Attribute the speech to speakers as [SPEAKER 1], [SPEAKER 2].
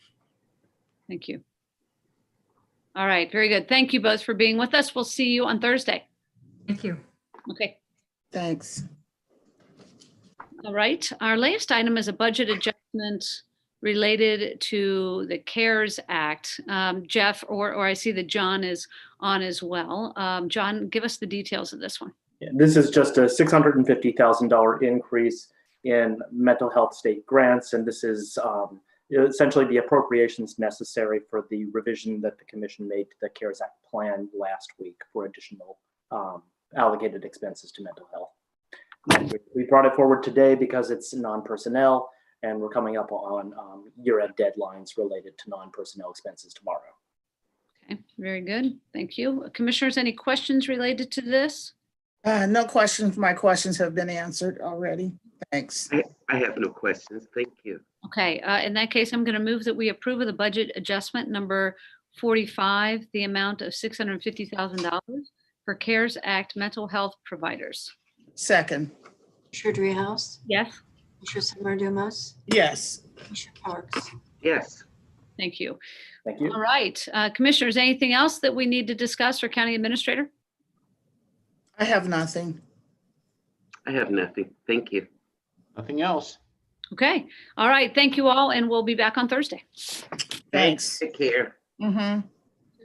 [SPEAKER 1] Thank you. All right, very good. Thank you both for being with us. We'll see you on Thursday.
[SPEAKER 2] Thank you.
[SPEAKER 1] Okay.
[SPEAKER 3] Thanks.
[SPEAKER 1] All right, our latest item is a budget adjustment related to the CARES Act. Um, Jeff, or, or I see that John is on as well. Um, John, give us the details of this one.
[SPEAKER 4] Yeah, This is just a $650,000 increase in mental health state grants, and this is um, essentially the appropriations necessary for the revision that the commission made to the CARES Act plan last week for additional um, allocated expenses to mental health. And we- We brought it forward today because it's non-personnel, and we're coming up on um, year-end deadlines related to non-personnel expenses tomorrow.
[SPEAKER 1] Okay, very good. Thank you. Commissioners, any questions related to this?
[SPEAKER 3] Uh, no questions. My questions have been answered already. Thanks.
[SPEAKER 5] I have no questions. Thank you.
[SPEAKER 1] Okay, uh, in that case, I'm going to move that we approve of the budget adjustment number 45, the amount of $650,000 for CARES Act mental health providers.
[SPEAKER 3] Second,
[SPEAKER 6] Commissioner Dreehouse,
[SPEAKER 1] Yes.
[SPEAKER 6] Commissioner Summer Dumas,
[SPEAKER 3] yes,
[SPEAKER 6] Commissioner Parks,
[SPEAKER 5] Yes,
[SPEAKER 1] Thank you.
[SPEAKER 4] Thank you.
[SPEAKER 1] All right, uh, Commissioners, anything else that we need to discuss or County Administrator?
[SPEAKER 3] I have nothing.
[SPEAKER 5] I have nothing. Thank you.
[SPEAKER 7] Nothing else.
[SPEAKER 1] Okay, all right, thank you all, and we'll be back on Thursday.
[SPEAKER 3] Thanks.
[SPEAKER 5] Take care.
[SPEAKER 3] Mm-hmm.